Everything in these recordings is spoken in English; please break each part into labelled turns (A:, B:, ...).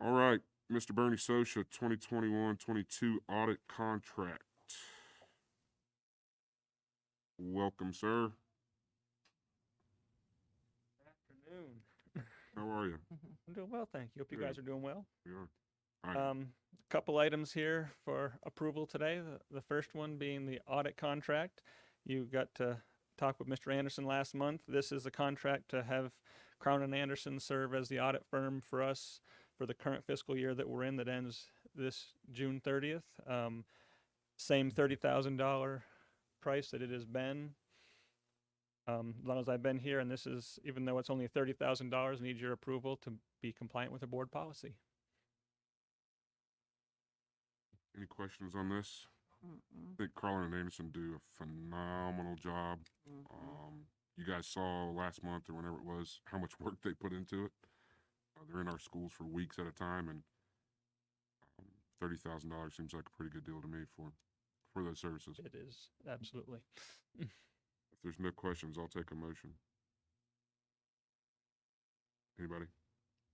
A: All right, Mr. Bernie Sosha, 2021-22 audit contract. Welcome, sir.
B: Afternoon.
A: How are you?
B: I'm doing well, thank you. Hope you
A: Good.
B: guys are doing well.
A: You are- I am.
B: Um, a couple items here for approval today. The, the first one being the audit contract. You got to talk with Mr. Anderson last month. This is a contract to have Crown and Anderson serve as the audit firm for us for the current fiscal year that we're in that ends this June 30th. Um, same $30,000 price that it has been. Um, as long as I've been here, and this is, even though it's only $30,000, need your approval to be compliant with the board policy.
A: Any questions on this? I think Carlin and Anderson do a phenomenal job. Um, you guys saw last month or whenever it was, how much work they put into it. Uh, they're in our schools for weeks at a time and um, thirty thousand dollars seems like a pretty good deal to me for, for those services.
B: It is, absolutely.
A: If there's no questions, I'll take a motion. Anybody?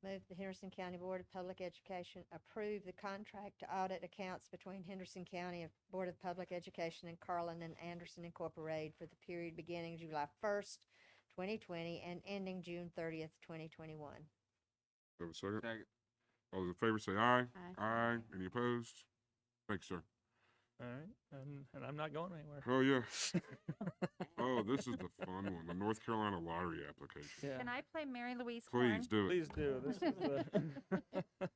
C: Move the Henderson County Board of Public Education approve the contract to audit accounts between Henderson County Board of Public Education and Carlin and Anderson Incorporated for the period beginning July first, twenty twenty, and ending June thirtieth, twenty twenty-one.
A: Have a second?
D: Second.
A: All those in favor say aye.
C: Aye.
A: Aye. Any opposed? Thanks, sir.
B: All right, and, and I'm not going anywhere.
A: Oh, yeah. Oh, this is the fun one, the North Carolina lottery application.
B: Yeah,
D: Can I play Mary Louise Corn?
A: Please do it.
B: please do. This is the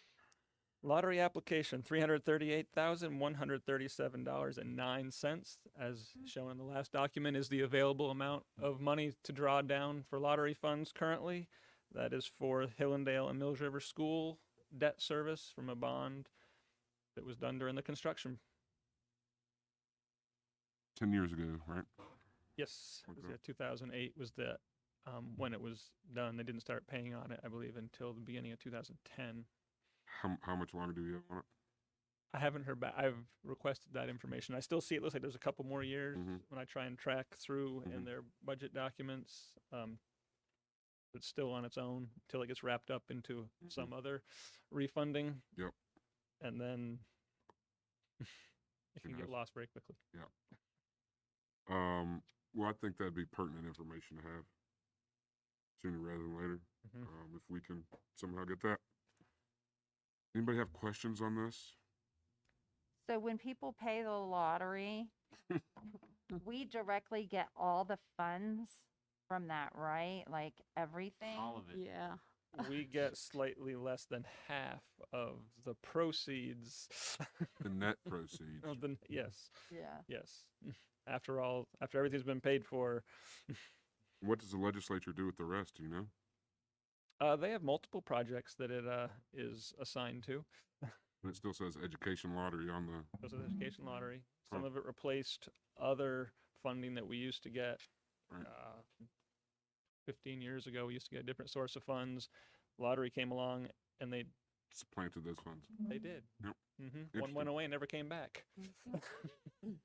B: lottery application, three hundred thirty-eight thousand one hundred thirty-seven dollars and nine cents, as shown in the last document, is the available amount of money to draw down for lottery funds currently. That is for Hillendale and Mills River School debt service from a bond that was done during the construction.
A: Ten years ago, right?
B: Yes, it was,
A: Okay.
B: yeah, 2008 was the um, when it was done. They didn't start paying on it, I believe, until the beginning of 2010.
A: How, how much longer do we have on it?
B: I haven't heard back. I've requested that information. I still see it looks like there's a couple more years
A: Mhm.
B: when I try and track through in
A: Mhm.
B: their budget documents. Um, it's still on its own until it gets wrapped up into some other refunding.
A: Mm-hmm. Yep.
B: And then it
A: Who
B: can get
A: knows?
B: lost very quickly.
A: Um, well, I think that'd be pertinent information to have sooner rather than later,
B: Mhm.
A: um, if we can somehow get that. Anybody have questions on this?
D: So when people pay the lottery, we directly get all the funds from that, right? Like everything?
E: All of it.
F: Yeah.
B: we get slightly less than half of the proceeds
A: The net proceeds.
B: of the yes
D: Yeah.
B: yes after all after everything's been paid for
A: What does the legislature do with the rest, do you know?
B: uh, they have multiple projects that it uh, is assigned to
A: And it still says education lottery on the,
B: those are the education lottery some
A: Huh.
B: of it replaced other funding that we used to get
A: Right.
B: uh, 15 years ago we used to get a different source of funds lottery came along and they
A: supplanted those funds.
B: they did
A: Yep.
B: hmm one went
A: Interesting.
B: away and never came back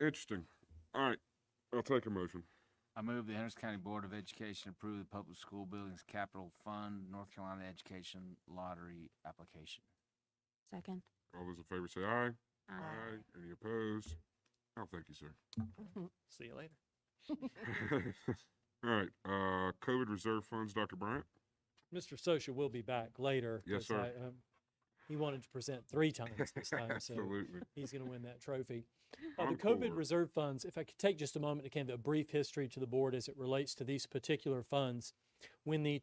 A: Interesting. All right, I'll take a motion.
E: I move the Henderson County Board of Education approve the Public School Buildings Capital Fund North Carolina Education Lottery application.
F: Second.
A: All those in favor say aye.
F: Aye.
E: Uh,
A: Any opposed? Oh, thank you, sir.
B: see you later
A: All right, uh, COVID reserve funds, Dr. Bryant?
G: Mr. Sosha will be back later.
A: Yes,
G: 'cause
A: sir.
G: I, um, He wanted to present three times this time, so
A: Absolutely.
G: he's going to win that trophy. Uh, The
A: Encore.
G: COVID reserve funds, if I could take just a moment to give a brief history to the board as it relates to these particular funds. When the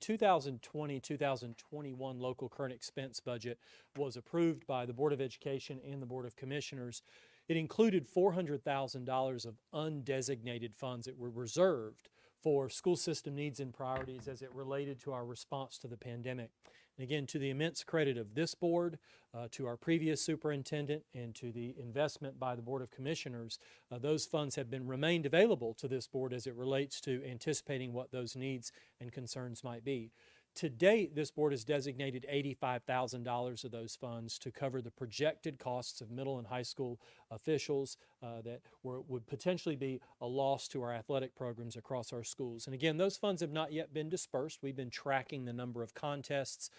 G: 2020-2021 local current expense budget was approved by the Board of Education and the Board of Commissioners, it included $400,000 of undesignated funds that were reserved for school system needs and priorities as it related to our response to the pandemic. And again, to the immense credit of this board, uh, to our previous superintendent, and to the investment by the Board of Commissioners, uh, those funds have been remained available to this board as it relates to anticipating what those needs and concerns might be. To date, this board has designated $85,000 of those funds to cover the projected costs of middle and high school officials uh, that were, would potentially be a loss to our athletic programs across our schools. And again, those funds have not yet been dispersed. We've been tracking the number of contests